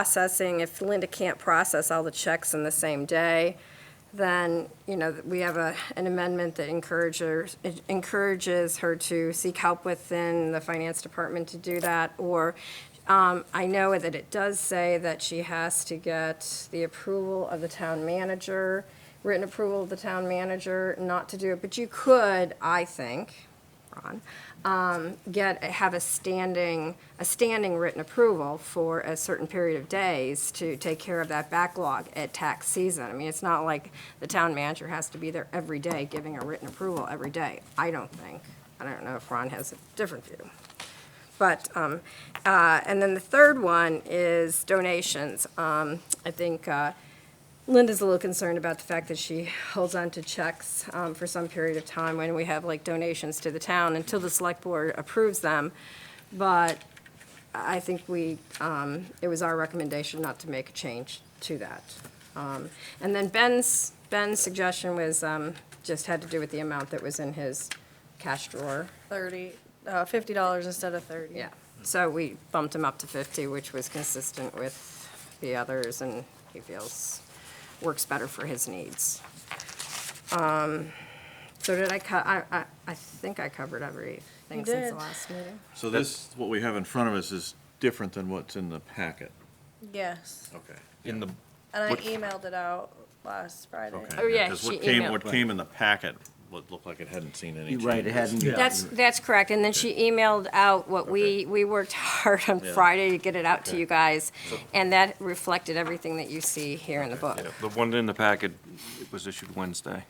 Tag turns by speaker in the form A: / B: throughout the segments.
A: processing, if Linda can't process all the checks in the same day, then, you know, we have a, an amendment that encourages, encourages her to seek help within the finance department to do that, or, um, I know that it does say that she has to get the approval of the town manager, written approval of the town manager not to do it, but you could, I think, Ron, um, get, have a standing, a standing written approval for a certain period of days to take care of that backlog at tax season. I mean, it's not like the town manager has to be there every day giving a written approval every day, I don't think. I don't know if Ron has a different view. But, um, uh, and then the third one is donations. Um, I think, uh, Linda's a little concerned about the fact that she holds on to checks um, for some period of time when we have like donations to the town until the select board approves them. But I think we, um, it was our recommendation not to make a change to that. Um, And then Ben's, Ben's suggestion was, um, just had to do with the amount that was in his cash drawer.
B: 30, uh, $50 instead of 30.
A: Yeah, so we bumped him up to 50, which was consistent with the others, and he feels works better for his needs. Um, So did I, co- I, I- I think I covered everything
B: You
A: since the
B: did.
A: last meeting.
C: So this, what we have in front of us is different than what's in the packet.
B: Yes.
C: Okay.
D: In the,
B: And I
D: What-
B: emailed it out last Friday.
A: Oh, yeah,
C: Because
A: she
C: what came,
A: emailed.
C: what came in the packet looked looked like it hadn't seen any changes.
D: right, it hadn't.
A: That's, that's correct, and then she emailed out what we, we worked hard on
C: Yeah.
A: Friday to get it out to
C: Okay.
A: you guys, and that reflected everything that you see here in the book,
D: the one in the packet was issued Wednesday.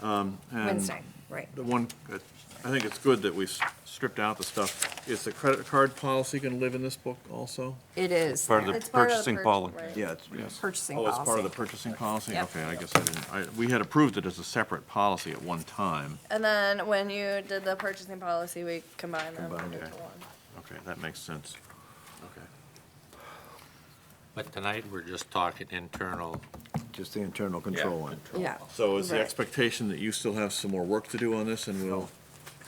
C: And
A: Wednesday, right.
C: The one, that- I think it's good that we've stripped out the stuff. Is the credit card policy going to live in this book also?
A: It is
D: Part of
A: there.
D: the
B: It's part of the
D: purchasing
B: purch-
D: policy.
B: right.
C: Yeah, it's, yes.
A: purchasing
C: Oh,
A: policy.
C: it's part of the purchasing policy?
A: Yep.
C: Okay, I guess I didn't, I, we had approved it as a separate policy at one time.
B: And then when you did the purchasing policy, we combined them
C: Combined,
B: into
C: okay.
B: one.
C: Okay, that makes sense. Okay.
E: But tonight, we're just talking internal.
F: Just the internal control one.
A: Yeah.
C: So is the
A: Right.
C: expectation that you still have some more work to do on this and we'll?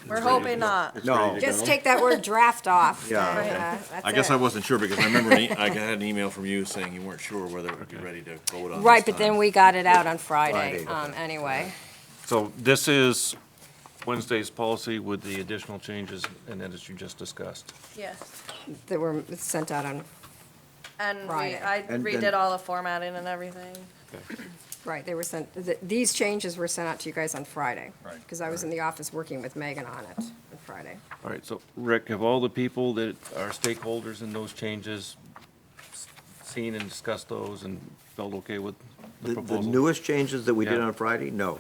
B: We're
C: it's ready to
B: hoping
C: go?
B: not.
C: It's ready to
A: Just
C: go?
A: take that word draft off.
F: Yeah,
A: and,
B: okay.
A: uh, that's
C: I guess I
A: it.
C: wasn't sure because I remember an e- I had an email from you saying you weren't sure whether it would be ready to vote on.
A: Right,
C: this
A: but then
C: time.
A: we got it out on Friday,
F: Friday,
A: um, anyway.
D: So this is Wednesday's policy with the additional changes and edits you just discussed.
B: Yes.
A: That were sent out on,
B: And we,
A: Friday.
B: I
F: And
B: redid
F: then-
B: all the formatting and everything.
A: right, they were sent, th- these changes were sent out to you guys on Friday. Right. Because I was in the office working with Megan on it on Friday.
D: All right, so Rick, have all the people that are stakeholders in those changes s- seen and discussed those and felt okay with
F: The-
D: the
F: The
D: proposal?
F: newest changes that we did
D: Yeah.
F: on Friday, no.
D: All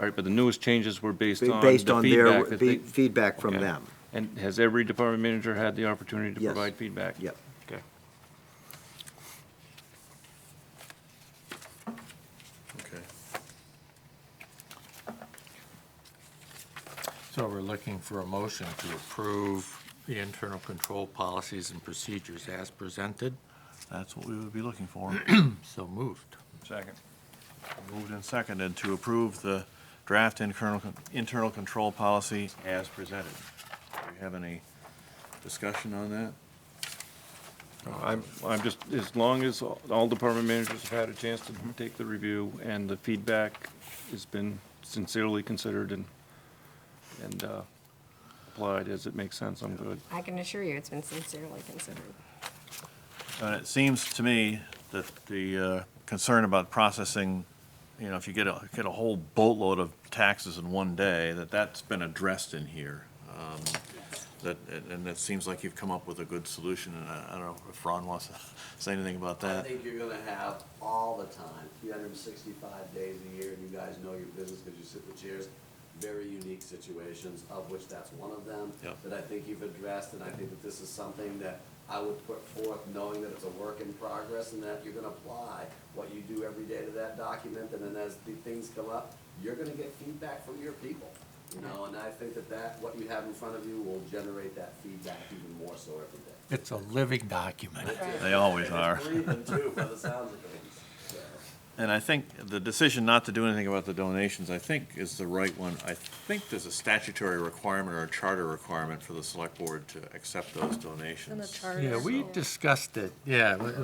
D: right, but the newest changes were based on the
F: Based on their
D: feedback that
F: fe-
D: they.
F: feedback from
D: Okay.
F: them.
D: And has every department manager had the opportunity to
F: Yes.
D: provide feedback?
F: Yep.
D: Okay.
C: Okay.
E: So we're looking for a motion to approve the internal control policies and procedures as presented.
C: That's what we would be looking for.
E: So moved.
C: Second. Moved and seconded to approve the draft internal, con- internal control policy as presented. Do we have any discussion on that?
D: I'm, I'm just, as long as all department managers have had a chance to take the review and the feedback has been sincerely considered and, and uh, applied as it makes sense, I'm good.
A: I can assure you, it's been sincerely considered.
C: And it seems to me that the uh, concern about processing, you know, if you get a, get a whole boatload of taxes in one day, that that's been addressed in here. Um, That, and- and that seems like you've come up with a good solution, and I I don't know if Ron wants to say anything about
G: I
C: that.
G: think you're gonna have all the time, three hundred and sixty-five days a year, and you guys know your business because you sit with chairs. Very unique situations, of which that's one of them.
C: Yep.
G: That I think you've addressed, and I think that this is something that I would put forth, knowing that it's a work in progress and that you're gonna apply what you do every day to that document, and then as the things come up, you're gonna get feedback from your people. You know, and I think that that, what you have in front of you will generate that feedback even more so every day.
E: It's a living document.
C: They always
G: And it's
C: are.
G: breathing too, by the sounds of things, so.
C: And I think the decision not to do anything about the donations, I think, is the right one. I think there's a statutory requirement or a charter requirement for the select board to accept those donations.
B: In the charter.
E: Yeah, we discussed it, yeah.